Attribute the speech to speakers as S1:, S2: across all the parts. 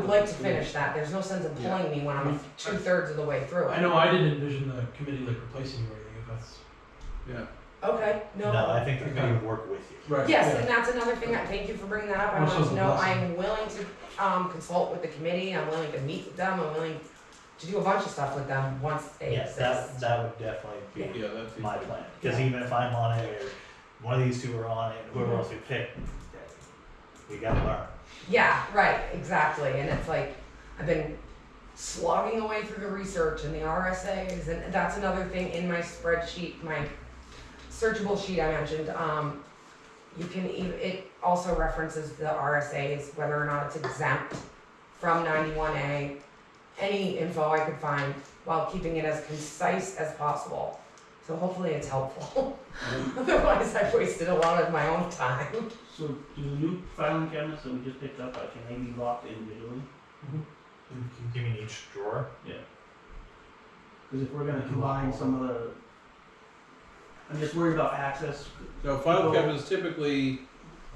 S1: like to finish that, there's no sense in pulling me when I'm two thirds of the way through
S2: I
S1: it.
S2: know I didn't envision the committee like replacing you or anything, if that's.
S1: Okay,
S3: No,
S1: no,
S3: I think the committee would work with you.
S2: Right.
S1: yes, and that's another thing, I, thank you for bringing that up, I
S2: Well,
S1: want
S2: so
S1: to know,
S2: blessing.
S1: I'm willing to, um, consult with the committee, I'm willing to meet with them, I'm willing to do a bunch of stuff with them once they
S3: Yes,
S1: exist.
S3: that, that would definitely be
S4: Yeah, that's
S3: my plan, cause even if I'm on it, or one of these two are on it, whoever else we pick, we gotta learn.
S1: Yeah, right, exactly. And it's like I've been slogging away through the research and the RSAs, and that's another thing in my spreadsheet, my searchable sheet I mentioned. Um, you can even it also references the RSAs, whether or not it's exempt from 91A. Any info I could find while keeping it as concise as possible. So hopefully it's helpful. Otherwise, I've wasted a lot of my own time.
S5: So do the new filing cabinets that we just picked up, like, can they be locked individually?
S3: You mean each drawer?
S5: Because if we're gonna combine some of the, I'm just worried about access.
S4: No, file cabinets typically,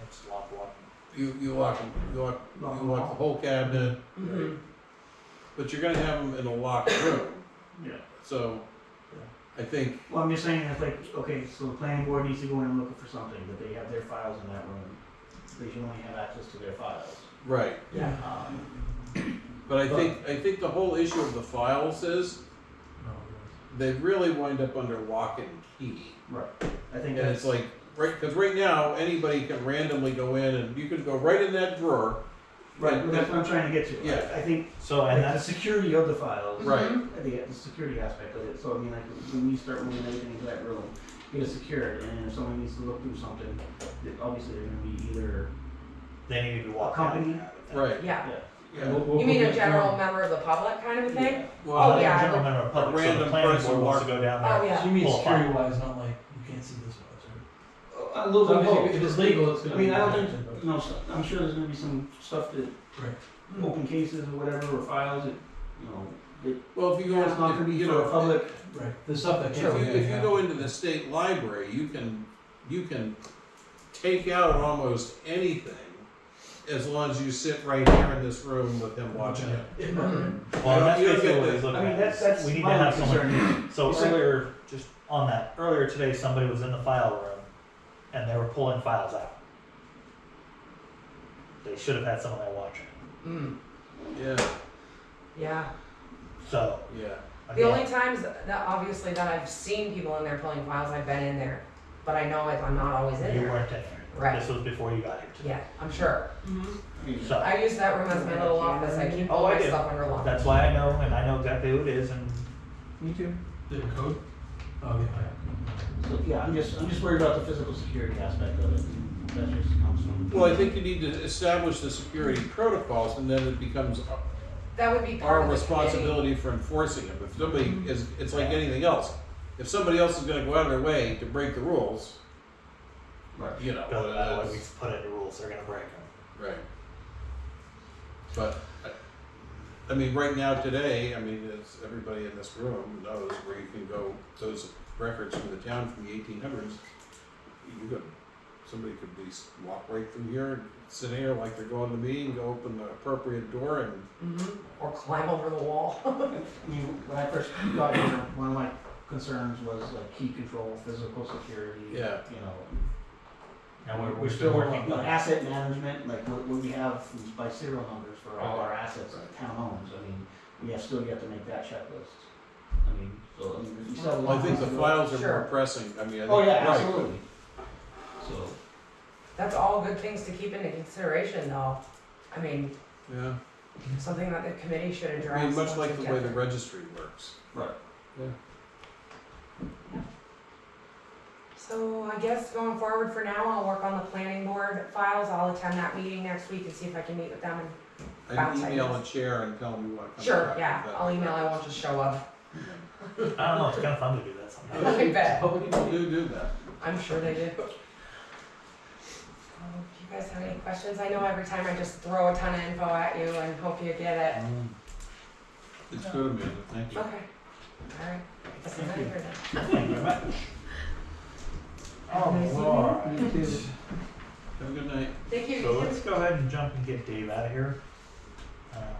S3: Let's lock one.
S4: you, you lock, 'em. you lock,
S5: Lock
S4: you
S5: 'em
S4: lock
S5: all.
S4: the whole cabinet,
S1: Mhm.
S4: but you're gonna have them in a locked room,
S5: Yeah.
S4: so I think,
S5: Well, I'm just saying, it's like, okay, so the planning board needs to go in and look for something, that they have their files in that room. They can only have access to their files.
S4: right.
S2: Yeah.
S5: Um,
S4: But I think, I think the whole issue of the files is, they really wind up under lock and key.
S5: right, I think
S4: And
S5: that's.
S4: it's like, right, because right now, anybody can randomly go in and you can go right in that drawer.
S5: Right, well, that's what I'm trying to get to. I-
S4: Yeah.
S5: I think,
S3: So,
S5: like,
S3: and
S5: the
S3: that's,
S5: security of the files.
S4: Right.
S5: I think it's the security aspect of it, so I mean, like, when you start moving everything into that room, it is secured, and if someone needs to look through something, that obviously they're gonna be either,
S3: they need to be walked out.
S5: Company.
S4: Right.
S1: Yeah.
S5: yeah.
S4: Yeah.
S1: You mean a general member of the public kind of a thing?
S4: Well,
S1: Oh, yeah.
S3: General member of public, so the
S4: random
S3: planning
S4: person
S3: board wants to
S4: walk-
S3: go down
S1: Oh,
S3: there.
S1: yeah.
S2: So you mean
S3: Pull a file.
S2: security wise, not like, you can't see this much,
S5: A little
S2: right?
S5: bit of both.
S2: If it's legal, it's gonna.
S5: I mean, I don't
S2: be-
S5: think, no, so- I'm sure there's gonna be some stuff that,
S2: Right.
S5: open cases or whatever, or files that, you know,
S4: well, if you go,
S5: it's not gonna
S4: if-
S5: be
S4: you
S5: for
S4: know,
S5: a public,
S2: Right, the stuff that
S4: if
S2: can't.
S4: you,
S2: be
S4: if you
S2: taken
S4: go
S2: out.
S4: into the state library, you can, you can take out almost anything as long as you sit right here in this room with them watching it.
S3: Well, that's
S4: You don't
S3: basically
S4: get
S3: what
S4: the-
S3: he's
S5: I
S3: looking
S5: mean,
S3: at,
S5: that's,
S3: is
S5: that's
S3: we need to
S5: my
S3: have
S5: only
S3: someone
S5: concern.
S3: So
S5: Is it-
S3: earlier, just on that, earlier today, somebody was in the file room and they were pulling files out. They should have had someone there watching.
S1: Mm,
S4: Yeah,
S1: yeah.
S3: So,
S4: yeah.
S1: The
S3: again,
S1: only times that obviously that I've seen people in there pulling files, I've been in there, but I know it, I'm not always in
S3: you
S1: there.
S3: weren't in there.
S1: Right.
S3: This was before you got here today.
S1: Yeah, I'm sure.
S5: I mean,
S3: So
S1: I use that room as my little office. I keep
S3: Oh,
S1: all
S3: I
S1: my
S3: do.
S1: stuff under lock.
S3: that's why I know, and I know exactly who it is, and
S5: Me too.
S2: The code? Oh, yeah.
S5: So, yeah, I'm just, I'm just worried about the physical security aspect of it, that just comes from.
S4: Well, I think you need to establish the security protocols and then it becomes
S1: That would be part
S4: our
S1: of the committee.
S4: responsibility for enforcing them. If somebody
S5: Mm-hmm.
S4: is, it's like anything else. If somebody else is gonna go out of their way to break the rules,
S5: Right.
S4: you know,
S3: Bill, that way
S4: that's-
S3: we put in the rules, they're gonna break them.
S4: Right. But, I, I mean, right now, today, I mean, as everybody in this room knows, where you can go, those records from the town from the eighteen hundreds, you could, somebody could be, s- walk right through here, sit here like they're going to the meeting, go open the appropriate door and,
S1: Mhm. Or climb over the wall.
S5: I mean, when I first got here, one of my concerns was like key control, physical security.
S4: Yeah.
S5: You know,
S3: And we're,
S5: We're
S3: we're
S5: still working
S3: working
S5: on
S3: on it.
S5: asset management, like what, what we have is by serial numbers for all our assets
S4: Right.
S5: that town owns, I mean, we have still yet to make that checklist. I mean, so, I mean, we still have a
S4: well,
S5: lot.
S4: I think the
S5: to do.
S4: files are more
S1: Sure.
S4: pressing, I mean, I think.
S5: Oh, yeah,
S4: right, but-
S5: absolutely. So,
S1: That's all good things to keep into consideration though. I mean,
S4: Yeah,
S1: something that the committee should address.
S4: I mean, much
S1: once
S4: like
S1: we
S4: the
S1: get
S4: way the
S1: there.
S4: registry works.
S1: So I guess going forward for now, I'll work on the planning board files. I'll attend that meeting next week and see if I can meet with them. and-
S4: I'd
S1: Bounce
S4: email a
S1: ideas.
S4: chair and tell them you wanna come back.
S1: Sure, yeah,
S4: but-
S1: I'll email, I won't just show up.
S3: I don't know, it's kinda fun to do that sometimes.
S1: I bet.
S4: Public people do do that.
S1: I'm sure they do. Um, If you guys have any questions, I know every time I just throw a ton of info at you and hope you get
S4: It's good, Amanda, thank
S1: it.
S4: you.
S1: Okay, alright, that's enough for now.
S3: Thank you very much.
S1: Nice evening.
S3: Alright.
S4: Have a good night.
S1: Thank you.
S3: So let's go ahead and jump and get Dave out of here. Um,